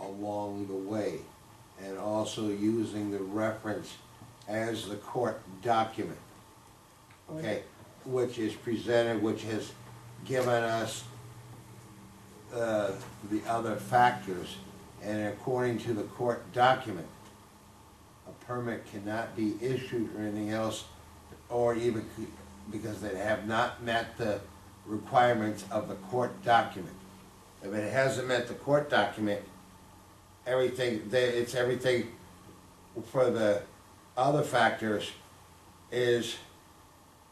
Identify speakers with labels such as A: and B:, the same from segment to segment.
A: along the way, and also using the reference as the court document, okay? Which is presented, which has given us uh, the other factors, and according to the court document, a permit cannot be issued or anything else, or even c- because they have not met the requirements of the court document. If it hasn't met the court document, everything, they- it's everything for the other factors is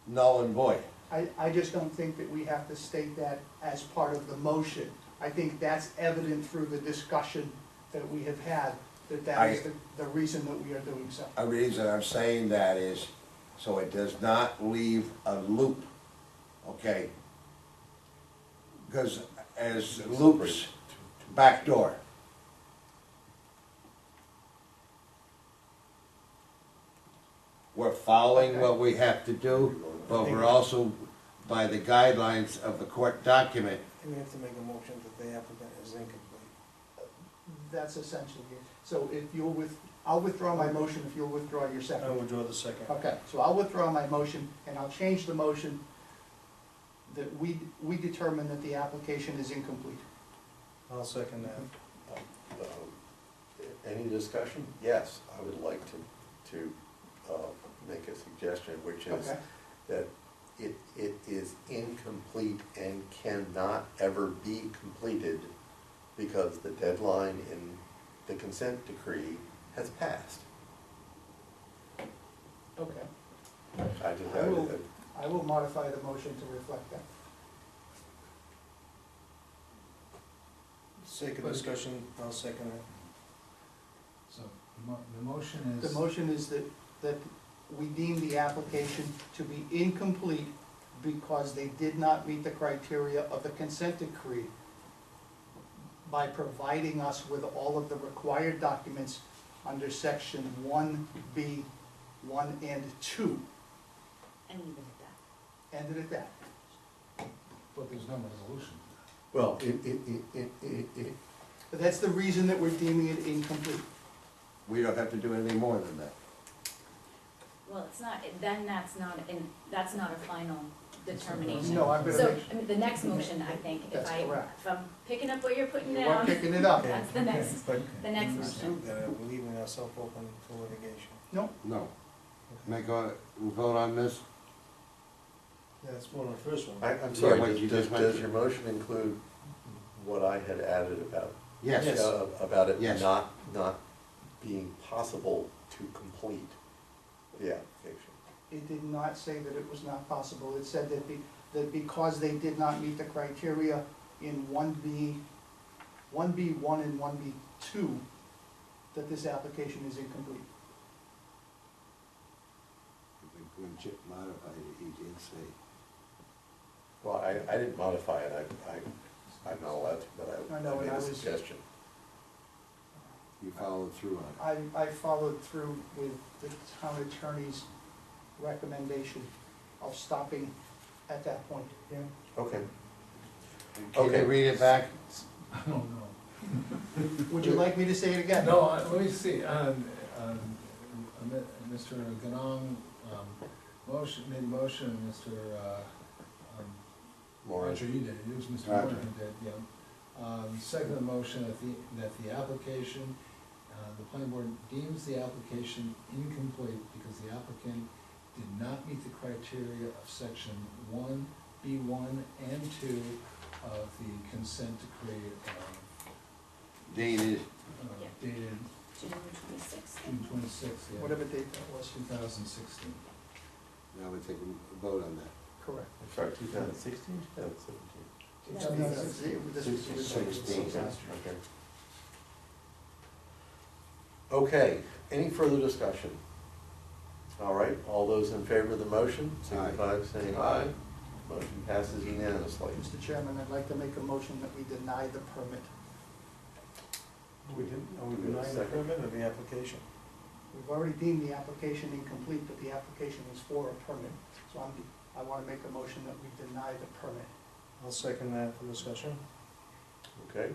A: null and void.
B: I, I just don't think that we have to state that as part of the motion. I think that's evident through the discussion that we have had, that that is
A: I-
B: the, the reason that we are doing so.
A: A reason I'm saying that is so it does not leave a loop, okay? Because as loops, back door. We're following what we have to do, but we're also by the guidelines of the court document.
C: And we have to make a motion that the applicant is incomplete.
B: That's essentially it. So if you'll with, I'll withdraw my motion if you'll withdraw your
C: I
B: second.
C: withdraw the second.
B: Okay, so I'll withdraw my motion and I'll change the motion that we, we determine that the application is incomplete.
C: I'll second that.
D: Um, Any discussion? Yes, I would like to, to uh, make a suggestion, which is
B: Okay.
D: that it, it is incomplete and cannot ever be completed because the deadline in the consent decree has passed.
B: Okay.
D: I just,
B: I will-
D: I-
B: I will modify the motion to reflect that.
C: Sake of discussion, I'll second it.
E: So, the mo- the motion
B: The
E: is,
B: motion is that, that we deem the application to be incomplete because they did not meet the criteria of the consent decree by providing us with all of the required documents under section one B, one and two.
F: and leave it at that.
B: Ended at that.
E: but there's no resolution.
D: well, it, it, it, it, it, it-
B: But that's the reason that we're deeming it incomplete.
A: We don't have to do anything more than that.
F: Well, it's not, then that's not, and that's not a final determination.
B: No, I'm gonna
F: So,
B: make,
F: I mean, the next motion, I think, if
B: That's
F: I,
B: correct.
F: if I'm picking up what you're putting
B: you are
F: down,
B: picking it up.
F: that's the next,
C: But
F: the next
C: Let's do
F: motion.
C: that, we're leaving ourselves open for litigation.
B: No,
A: No. Make a, vote on this?
C: That's one of the first one.
D: I, I'm
A: Yeah,
D: sorry,
A: what
D: does,
A: you
D: does
A: just went
D: does
A: through.
D: your motion include what I had added about
A: Yes.
C: Yes.
D: uh, about it
A: Yes.
D: not, not being possible to complete the application.
B: It did not say that it was not possible. It said that be, that because they did not meet the criteria in one B, one B one and one B two, that this application is incomplete.
A: When Chip modified it, he did say,
D: Well, I, I didn't modify it, I, I, I'm not allowed to, but I
B: I know,
D: I
B: and
D: made
B: I
D: a
B: was-
D: suggestion.
A: you followed through on it.
B: I, I followed through with the town attorney's recommendation of stopping at that point.
C: Yeah.
D: Okay.
A: Can
D: Okay.
A: you read it back?
E: I don't know.
B: Would you like me to say it again?
E: No, I- let me see, um, um, uh, Mr. Ganong, um, motion, made a motion, Mr., uh, um,
D: Moran.
E: Roger, you did, it was Mr.
A: Roger.
E: Moran who did, yeah. Um, second motion, that the, that the application, uh, the planning board deems the application incomplete because the applicant did not meet the criteria of section one, B one and two of the consent decree, uh,
A: Dated
E: uh,
F: Yeah.
E: dated
F: June twenty-sixth.
E: June twenty-sixth, yeah.
B: Whatever date that was,
E: Two thousand sixteen.
A: Now we take a vote on that.
B: correct.
D: I'm sorry, two thousand sixteen, two thousand seventeen?
B: This was- this was-
A: Sixteen.
D: Okay. Okay, any further discussion? All right, all those in favor of the motion, signify by saying aye. Motion passes unanimously.
B: Mr. Chairman, I'd like to make a motion that we deny the permit.
C: We didn't, are we denying the permit or the application?
B: We've already deemed the application incomplete, but the application is for a permit. So I'm, I want to make a motion that we deny the permit.
C: I'll second that for discussion.
D: Okay,